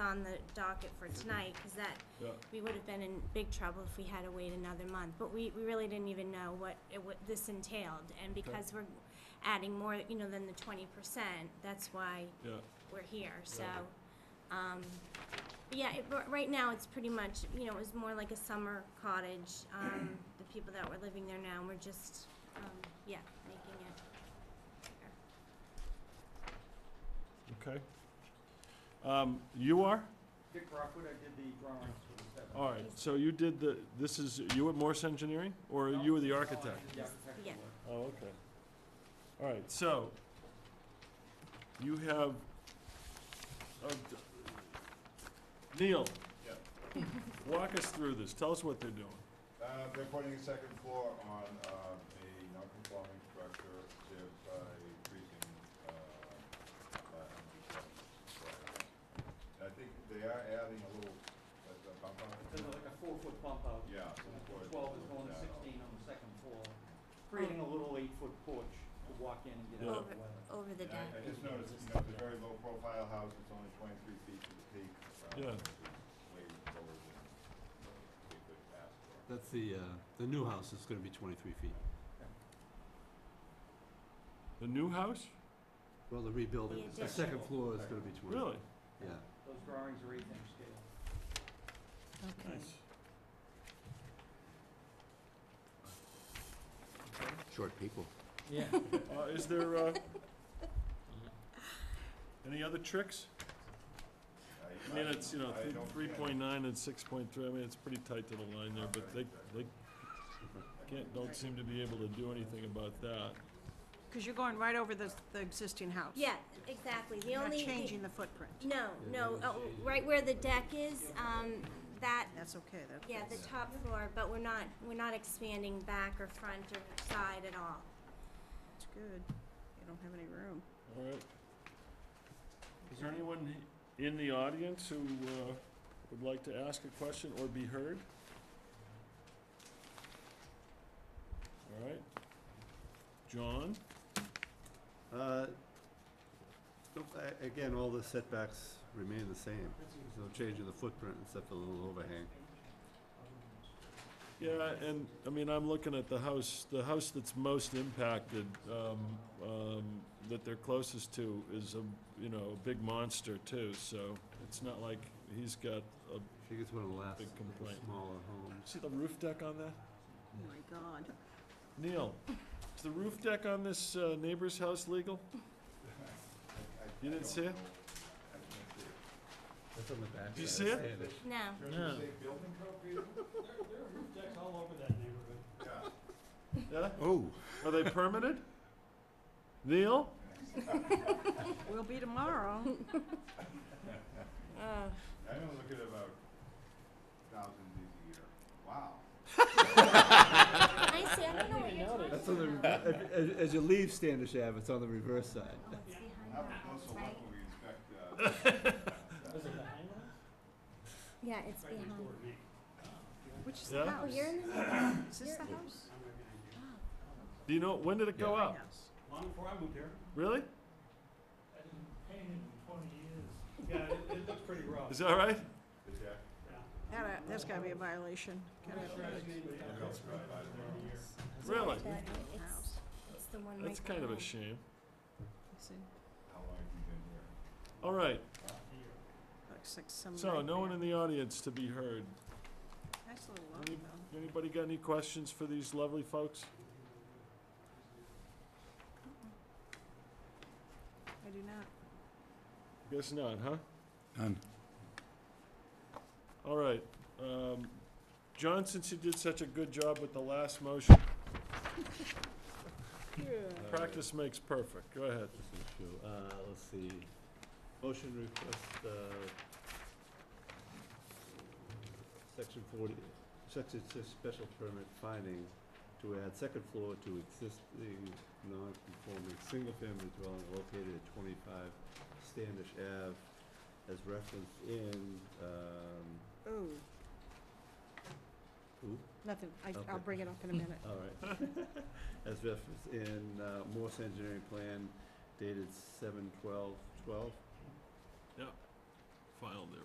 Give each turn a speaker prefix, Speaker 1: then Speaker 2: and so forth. Speaker 1: on the docket for tonight, because that,
Speaker 2: Yeah.
Speaker 1: we would have been in big trouble if we had to wait another month. But we, we really didn't even know what, it- what this entailed, and because we're adding more, you know, than the twenty percent, that's why
Speaker 2: Yeah,
Speaker 1: we're here, so,
Speaker 2: Right.
Speaker 1: um, but yeah, it, r- right now, it's pretty much, you know, it was more like a summer cottage, um, the people that were living there now, we're just, um, yeah, making it bigger.
Speaker 2: okay. Um, you are?
Speaker 3: Dick Rockwood, I did the drawings for the seven.
Speaker 2: All right, so you did the, this is, you were Morse Engineering, or
Speaker 3: No,
Speaker 2: you were the
Speaker 3: no, I
Speaker 2: architect?
Speaker 3: did the architectural
Speaker 1: Yeah.
Speaker 3: work.
Speaker 2: Oh, okay. All right, so, you have, uh, d- Neil?
Speaker 4: Yeah.
Speaker 2: Walk us through this, tell us what they're doing.
Speaker 4: Uh, they're putting a second floor on, uh, a non-conforming structure, they're, uh, increasing, uh, by how many steps? And I think they are adding a little, uh, the bump out.
Speaker 3: There's like a four-foot bump out.
Speaker 4: Yeah. so
Speaker 3: So
Speaker 4: it's worth-
Speaker 3: Twelve is going to
Speaker 4: yeah.
Speaker 3: sixteen on the second floor, creating a little eight-foot porch to walk in and get out of the weather.
Speaker 1: Over the
Speaker 4: And I,
Speaker 1: deck.
Speaker 4: I just noticed, you know, it's a very low profile house, it's only twenty-three feet to the peak. uh,
Speaker 2: Yeah.
Speaker 4: which is Way lower than we could ask for.
Speaker 5: That's the, uh, the new house is gonna be twenty-three feet.
Speaker 2: The new house?
Speaker 5: Well, the rebuilding,
Speaker 1: The
Speaker 5: the second
Speaker 3: addition.
Speaker 5: floor is gonna be twenty.
Speaker 2: Really?
Speaker 5: Yeah.
Speaker 3: Those drawings are eight-inch scale.
Speaker 2: Nice.
Speaker 5: Short people.
Speaker 3: Yeah.
Speaker 2: Uh, is there, uh, any other tricks? I mean, it's, you know,
Speaker 4: I don't
Speaker 2: three
Speaker 4: get it.
Speaker 2: point nine and six point three, I mean, it's pretty tight to the line there, but they, they can't, don't seem to be able to do anything about that.
Speaker 6: Because you're going right over the, the existing house.
Speaker 1: Yeah, exactly, the
Speaker 6: You're not
Speaker 1: only. the-
Speaker 6: changing the footprint.
Speaker 1: No,
Speaker 5: Yeah,
Speaker 1: no,
Speaker 5: they're
Speaker 1: oh, right where the deck is, um, that,
Speaker 6: That's okay, that,
Speaker 1: yeah, the
Speaker 6: that's-
Speaker 1: top floor, but we're not, we're not expanding back or front or side at all.
Speaker 6: that's good. You don't have any room.
Speaker 2: All right. Is there anyone in the audience who, uh, would like to ask a question or be heard? All right. John?
Speaker 5: Uh, no, a- again, all the setbacks remain the same. There's no change in the footprint except for the little overhang.
Speaker 2: Yeah, and, I mean, I'm looking at the house, the house that's most impacted, um, um, that they're closest to is a, you know, a big monster too, so it's not like he's got a,
Speaker 5: I think it's one of the last,
Speaker 2: Big
Speaker 5: of the
Speaker 2: complaint.
Speaker 5: smaller homes.
Speaker 2: see the roof deck on that?
Speaker 6: Oh, my God.
Speaker 2: Neil, is the roof deck on this, uh, neighbor's house legal?
Speaker 4: I- I
Speaker 2: You didn't
Speaker 4: don't
Speaker 2: see it?
Speaker 4: know. I didn't see it.
Speaker 5: That's on the back.
Speaker 2: Do you
Speaker 5: side.
Speaker 2: see
Speaker 5: I
Speaker 2: it?
Speaker 5: understand
Speaker 1: No,
Speaker 2: Yeah.
Speaker 4: Does it say building code, Peter? Yeah.
Speaker 2: Yeah?
Speaker 5: Oh,
Speaker 2: Are they permitted? Neil?
Speaker 6: Will be tomorrow.
Speaker 1: oh,
Speaker 4: I don't look at about thousands a year. Wow.
Speaker 1: I see, I don't know what you're talking about.
Speaker 5: that's on the, as, as you leave Standish Ave, it's on the reverse side.
Speaker 1: Oh, it's behind
Speaker 4: Have a
Speaker 1: that house,
Speaker 4: closer
Speaker 1: right?
Speaker 4: look when we inspect, uh,
Speaker 1: Yeah, it's behind.
Speaker 6: Which is
Speaker 2: Yeah?
Speaker 6: the
Speaker 1: Oh,
Speaker 6: house?
Speaker 1: you're in the, middle.
Speaker 6: Is this the
Speaker 1: you're-
Speaker 6: house?
Speaker 2: Do you know, when did it go
Speaker 6: My
Speaker 2: up?
Speaker 6: house.
Speaker 3: Long before I moved here,
Speaker 2: Really?
Speaker 3: I didn't paint in twenty years. Yeah, it, it looks pretty rough.
Speaker 2: Is that right?
Speaker 4: the deck.
Speaker 6: That, that's gotta be a violation. Gotta have a
Speaker 2: Really?
Speaker 1: that- it's,
Speaker 6: house.
Speaker 1: it's the one right
Speaker 2: That's kind of a
Speaker 1: behind.
Speaker 2: shame.
Speaker 6: See,
Speaker 4: How long have you been here?
Speaker 2: All right,
Speaker 6: Looks like some.
Speaker 2: so no one in the
Speaker 6: nightmare.
Speaker 2: audience to be heard.
Speaker 6: Nice little lot,
Speaker 2: Any-
Speaker 6: though.
Speaker 2: Anybody got any questions for these lovely folks?
Speaker 6: I do not.
Speaker 2: Guess not, huh?
Speaker 5: None.
Speaker 2: All right. Um, John, since you did such a good job with the last motion, practice makes perfect. Go ahead.
Speaker 5: This is true. Uh, let's see, motion request, uh, section forty, section six special permit finding to add second floor to existing non-conforming single-family dwelling located at twenty-five Standish Ave as referenced in, um,
Speaker 6: Ooh,
Speaker 5: ooh,
Speaker 6: nothing. I,
Speaker 5: Okay.
Speaker 6: I'll bring it up in a minute.
Speaker 5: all right. As referenced in, uh, Morse Engineering Plan dated seven twelve twelve.
Speaker 2: File there